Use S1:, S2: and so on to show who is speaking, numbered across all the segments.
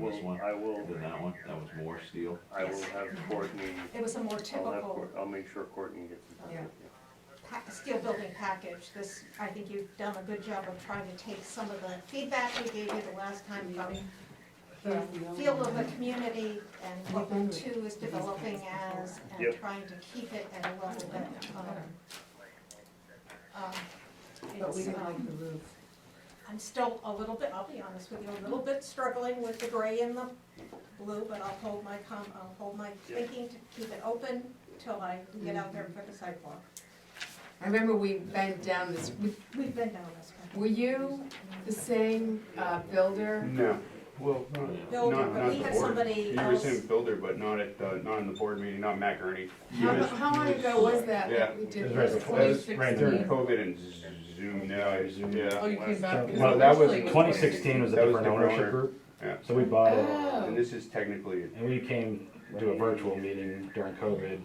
S1: this
S2: will-
S1: one
S2: I will,
S1: than that one, that was more steel.
S2: I will have Courtney,
S3: It was a more
S2: I'll have,
S3: typical
S2: Court- I'll make sure Courtney gets in touch
S3: Yeah.
S2: with you.
S3: pa- steel building package. This, I think you've done a good job of trying to take some of the feedback we gave you the last time about the feel of the community and what Route Two is developing as and
S2: Yep.
S3: trying to keep it at a level that, um, um,
S4: But we
S3: it's,
S4: didn't
S3: um,
S4: like the roof.
S3: I'm still a little bit, I'll be honest with you, a little bit struggling with the gray and the blue, but I'll hold my com, I'll hold my thinking to keep it open till I get out there and put the sidewalk.
S4: I remember we bent down this,
S3: We've been down this path.
S4: were you the same uh, builder?
S5: No, well, not,
S3: No,
S5: not,
S3: but
S5: not
S3: we
S5: the
S3: had
S5: board.
S3: somebody
S5: He was
S3: else,
S5: in builder, but not at, the- not in the board meeting, not Matt Gurney. He
S4: How,
S5: was-
S4: how
S5: he
S4: long
S5: was-
S4: ago was that? that
S5: Yeah.
S4: We
S6: It
S4: did
S6: was right
S4: this?
S6: before-
S5: That was right during
S6: 2016.
S5: COVID and Zoom, no, it was- yeah.
S7: Oh, you came back. because
S5: Well, that was
S7: originally it
S6: 2016 was a
S5: That was
S6: different
S5: different owner.
S6: ownership group,
S5: Yeah.
S6: so we bought it,
S4: Oh.
S5: And this is technically,
S6: and we came to a virtual meeting during COVID,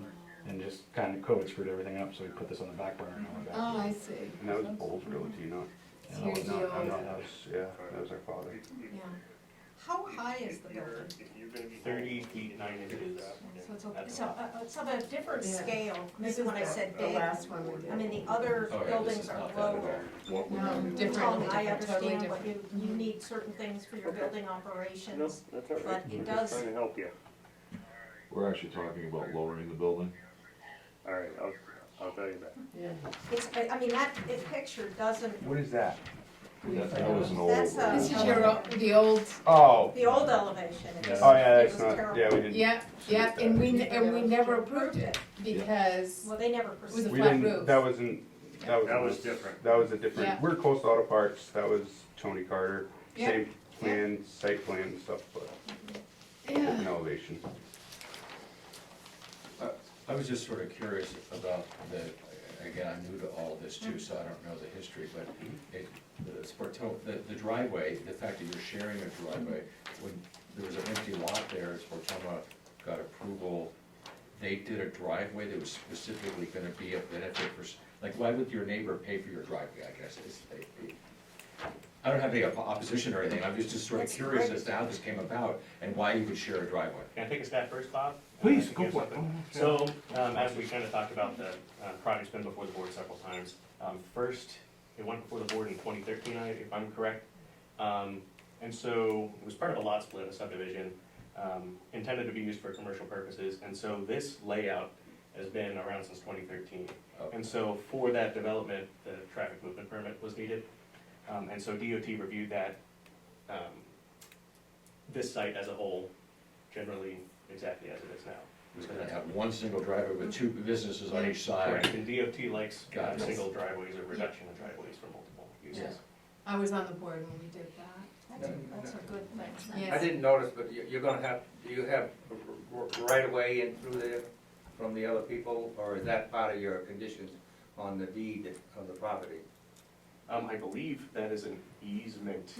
S6: and just kind of COVID screwed everything up, so we put this on the back burner and all that.
S4: Oh, I see.
S5: and that was Bulls Realty, not,
S4: It's
S6: No,
S4: your
S6: it's
S5: not,
S4: deal.
S5: not, that was, yeah, that was our father.
S3: yeah. How high is the building?
S2: If you're gonna be.
S5: Thirty feet, nine inches.
S3: So it's a, so, uh, it's of a different
S4: Yeah.
S3: scale,
S4: This
S3: maybe
S4: is
S3: when I
S4: the-
S3: said
S4: The
S3: big,
S4: last one we did.
S3: I mean, the other
S1: Oh, yeah, this
S3: buildings
S1: is
S3: are
S1: not that at
S3: lower.
S1: all.
S4: No,
S3: Tom,
S4: different,
S3: I
S4: different, totally
S3: understand, but
S4: different.
S3: you, you need certain things for your building
S2: No,
S3: operations,
S2: that's all right.
S3: but it
S2: I'm
S3: does,
S2: Trying to help you.
S1: We're actually talking about lowering the building.
S2: All right, I'll, I'll tell you that.
S4: Yeah.
S3: it's, I I mean, that, it picture doesn't,
S5: What is that?
S1: That, that was an old.
S3: That's a-
S4: This is your, o- the old,
S5: Oh,
S3: the old elevation, it was,
S5: oh yeah,
S3: it was
S5: that's not,
S3: terrible.
S5: yeah, we didn't.
S4: yeah, yeah, and we, ne- and we never approved it because
S3: Well, they never
S4: it was a
S3: pursued,
S5: We
S4: flat roof.
S5: didn't, that wasn't, that was.
S2: That was different.
S5: That was a different,
S4: Yeah.
S5: we're close to auto parts, that was Tony Carter,
S4: Yeah.
S5: same plan, site plan and stuff, but
S4: Yeah.
S5: different elevation.
S8: I was just sort of curious about the, again, I'm new to all of this too, so I don't know the history, but it, the Sporto, the, the driveway, the fact that you're sharing a driveway, when there was an empty lot there, Sportoma got approval, they did a driveway that was specifically gonna be a benefit for, s- like, why would your neighbor pay for your driveway, I guess, is, I don't have any op- opposition or anything, I'm just just sort of
S3: That's
S8: curious
S3: great.
S8: as to how this came about and why you would share a driveway.
S9: Can I take a stab first, Bob?
S5: Please,
S9: Uh,
S5: go
S9: give
S5: for it.
S9: something. So, um, as we kind of talked about, the, uh, project's been before the board several times. Um, first, it went before the board in twenty thirteen, I, if I'm correct. Um, and so it was part of a lot split, a subdivision, um, intended to be used for commercial purposes. And so this layout has been around since twenty thirteen.
S8: Okay.
S9: And so for that development, the traffic movement permit was needed. Um, and so DOT reviewed that, um, this site as a whole, generally exactly as it is now.
S8: It's gonna have one single driveway with two businesses on each
S9: Correct,
S8: side.
S9: and DOT likes uh,
S8: Got it.
S9: single driveways or reduction of driveways for multiple uses.
S4: I was on the board when we did that.
S3: that's, a- that's a good thing.
S4: Yes.
S10: I didn't notice, but you- you're gonna have, you have r- r- right away in through there from the other people, or is that part of your conditions on the deed of the property?
S9: Um, I believe that is an easement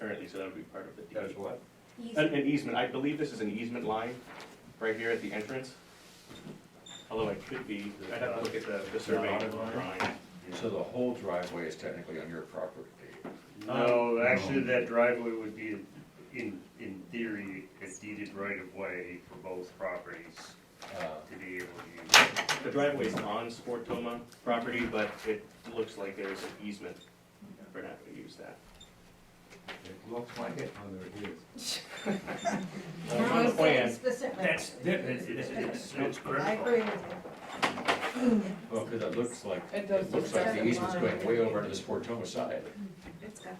S9: currently, so that would be part of the
S10: That is
S9: deed.
S10: what?
S9: An, an easement, I believe this is an easement line, right here at the entrance. Although it could be, I'd have to look at the, the survey
S8: Dotted line?
S9: drawing.
S8: So the whole driveway is technically on your property.
S2: No,
S9: Um,
S2: actually, that driveway would be in, in theory, a deeded right of way for both properties
S8: Uh,
S2: to be able to use.
S9: The driveway is on Sportoma property, but it looks like there's an easement for not to use that.
S10: It looks like it on the reviews.
S9: Uh, On the plan,
S3: Specific.
S2: That's, it's, it's, it's, it's
S3: I
S2: critical.
S3: agree with you,
S8: Well, because it looks like,
S7: It does
S8: it looks like the
S7: look
S8: easement's
S7: like
S8: going
S7: a
S8: way
S7: line.
S8: over to the Sportoma side.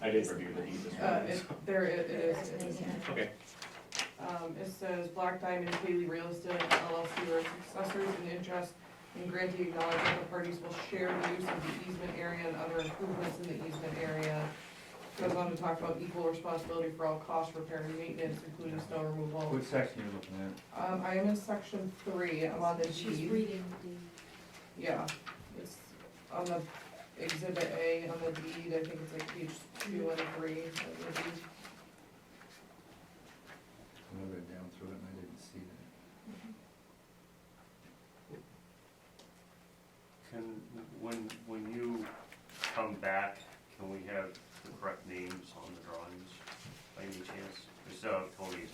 S9: I didn't review the deed this
S7: Uh,
S9: morning.
S7: it, there, it it is,
S3: That's
S7: it is.
S3: amazing.
S9: Okay,
S7: Um, it says Black Diamond Haley Real Estate LLC or its successors in interest in granting acknowledgement the parties will share the use of the easement area and other improvements in the easement area. Goes on to talk about equal responsibility for all cost repair and maintenance, including snow removal.
S10: Which section are you looking at?
S7: Um, I am in section three, I'm on the
S3: she's
S7: deed.
S3: reading the deed.
S7: Yeah, it's on the exhibit A, on the deed, I think it's like page two and three of the deed.
S10: I read down through it and I didn't see that.
S2: Can, when, when you come back, can we have the correct names on the drawings by any chance? This
S9: uh, Tony's